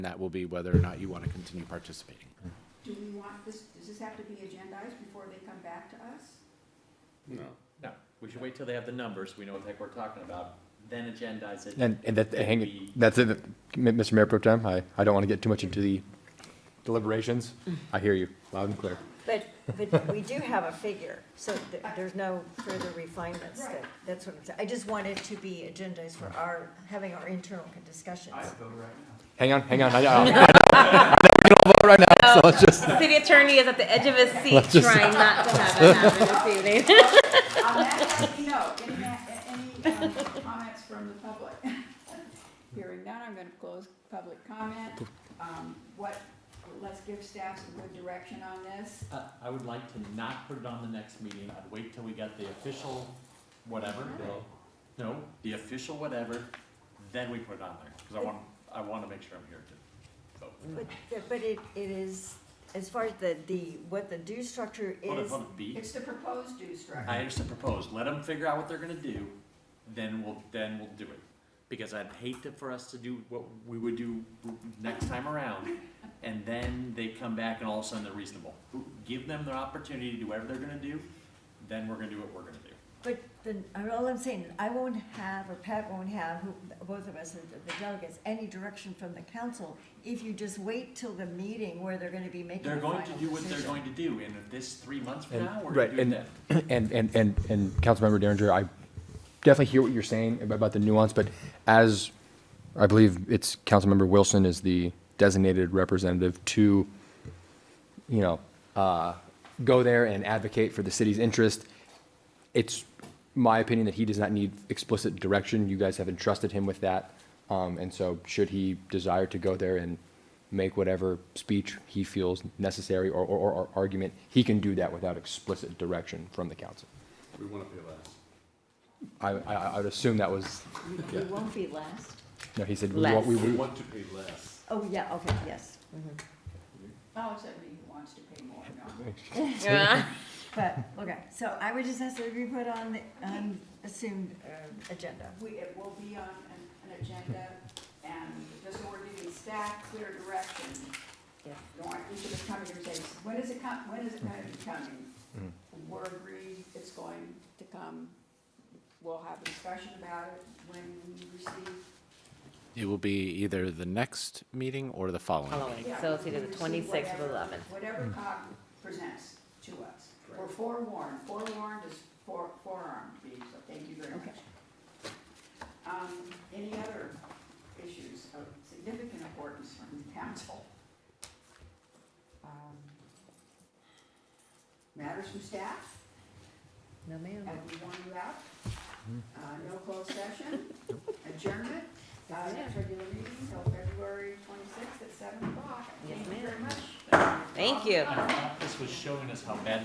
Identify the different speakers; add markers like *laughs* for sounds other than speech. Speaker 1: that will be whether or not you want to continue participating.
Speaker 2: Do we want this, does this have to be agendized before they come back to us?
Speaker 3: No.
Speaker 4: No, we should wait till they have the numbers, we know what the heck we're talking about, then agendize it.
Speaker 5: And, and that,
Speaker 4: It
Speaker 5: hang,
Speaker 4: could
Speaker 5: it-
Speaker 4: be-
Speaker 5: that's it, M- Mr. Mayor Pro Tem, I, I don't want to get too much into the deliberations. I hear you loud and clear.
Speaker 6: But, but we do have a figure, so th- there's no further refinements. that-
Speaker 2: Right.
Speaker 6: That's what I'm saying. I just want it to be agendized for our, having our internal discussions.
Speaker 5: Hang on, hang on, I, I, we can all vote right now, so let's just,
Speaker 7: City attorney is at the edge
Speaker 6: *laughs*
Speaker 7: of his
Speaker 5: Let's
Speaker 7: seat
Speaker 5: just-
Speaker 7: trying not to have it happen this evening.
Speaker 2: On that, let me know. Any, ma- any um, comments from the public? *laughs* Hearing none, I'm gonna close public comment. Um, what, let's give staff some good direction on this.
Speaker 4: Uh, I would like to not put it on the next meeting, I'd wait till we got the official whatever. No, the official whatever, then we put it on there, because I want, I want to make sure I'm here to vote.
Speaker 6: But, but it, it is, as far as the, the, what the due structure
Speaker 4: Hold it,
Speaker 6: is,
Speaker 4: hold it, B.
Speaker 2: It's the proposed due structure.
Speaker 5: Uh-huh.
Speaker 4: I understand proposed, let them figure out what they're gonna do, then we'll, then we'll do it. Because I'd hate to, for us to do what we would do next time around, and then they come back and all of a sudden they're reasonable. Give them their opportunity to do whatever they're gonna do, then we're gonna do what we're gonna do.
Speaker 6: but then, I- all I'm saying, I won't have, or Pat won't have, who- both of us, are the delegates, any direction from the council if you just wait till the meeting where they're gonna be making
Speaker 4: They're
Speaker 6: the final
Speaker 4: going to
Speaker 6: decision.
Speaker 4: do what they're going to do, and if this three months from
Speaker 5: And-
Speaker 4: now, we're
Speaker 5: right,
Speaker 4: doing
Speaker 5: and-
Speaker 4: that.
Speaker 5: and, and, and, and Councilmember Derringer, I definitely hear what you're saying ab- about the nuance, but as, I believe it's Councilmember Wilson is the designated representative to, you know, uh, go there and advocate for the city's interest. It's my opinion that he does not need explicit direction. You guys have entrusted him with that. Um, and so should he desire to go there and make whatever speech he feels necessary or, or, or- or argument, he can do that without explicit direction from the council.
Speaker 3: We want to pay less.
Speaker 5: I, I, I would assume that was,
Speaker 6: We- We won't be last.
Speaker 5: no, he said, we want, we,
Speaker 3: We
Speaker 5: we-
Speaker 3: want to pay less.
Speaker 6: Oh, yeah, okay, yes.
Speaker 2: Oh, so he wants to pay more, no.
Speaker 7: Yeah.
Speaker 6: But, okay, so I would just ask that we put on the, um, assumed, uh, agenda.
Speaker 2: We, it will be on an, an agenda, and just so we're giving staff clear direction.
Speaker 6: Yeah.
Speaker 2: Don't want each of us coming here and saying, when is it com, when is it gonna be coming? We're agreed it's going to come, we'll have a discussion about it when we receive.
Speaker 1: It will be either the next meeting or the following.
Speaker 7: Following,
Speaker 2: yeah,
Speaker 7: so it's
Speaker 2: when
Speaker 7: either
Speaker 2: we
Speaker 7: the
Speaker 2: receive
Speaker 7: twenty-sixth or the
Speaker 2: whatever-
Speaker 7: eleventh.
Speaker 2: Whatever COG presents to us. We're forewarned, forewarned is fore, forearmed, so thank you very much. Um, any other issues of significant importance from the council? Um, Matters from staff,
Speaker 7: No, ma'am.
Speaker 2: and we warn you out. Uh, no closed session, adjournment, uh, next regular meeting till February twenty-sixth at seven o'clock.
Speaker 7: Yes,
Speaker 2: Thank you
Speaker 7: ma'am.
Speaker 2: very much.
Speaker 7: Thank you.
Speaker 4: This was showing us how bad